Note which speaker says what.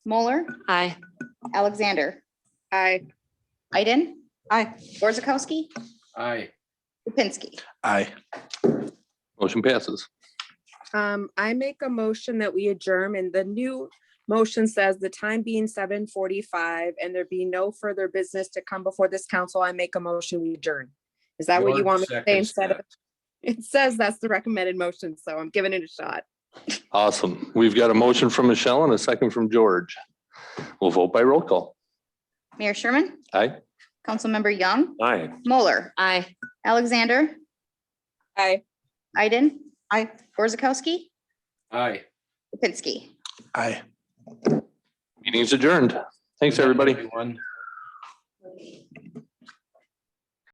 Speaker 1: Moeller,
Speaker 2: Aye.
Speaker 1: Alexander,
Speaker 3: Aye.
Speaker 1: Iden,
Speaker 3: Aye.
Speaker 1: Borzakowski,
Speaker 4: Aye.
Speaker 1: Kupinski.
Speaker 5: Aye.
Speaker 6: Motion passes.
Speaker 3: Um, I make a motion that we adjourn and the new motion says the time being seven forty-five and there be no further business to come before this council, I make a motion we adjourn. Is that what you want
Speaker 4: Bjorn
Speaker 3: me to say
Speaker 4: seconds
Speaker 3: instead of?
Speaker 4: that.
Speaker 3: It says that's the recommended motion, so I'm giving it a shot.
Speaker 6: Awesome. We've got a motion from Michelle and a second from George. We'll vote by roll call.
Speaker 1: Mayor Sherman,
Speaker 6: Aye.
Speaker 1: Councilmember Young,
Speaker 6: Aye.
Speaker 1: Moeller,
Speaker 2: Aye.
Speaker 1: Alexander,
Speaker 3: Aye.
Speaker 1: Iden,
Speaker 3: Aye.
Speaker 1: Borzakowski,
Speaker 4: Aye.
Speaker 1: Kupinski.
Speaker 5: Aye.
Speaker 6: Meeting's adjourned. Thanks, everybody.
Speaker 4: Everyone.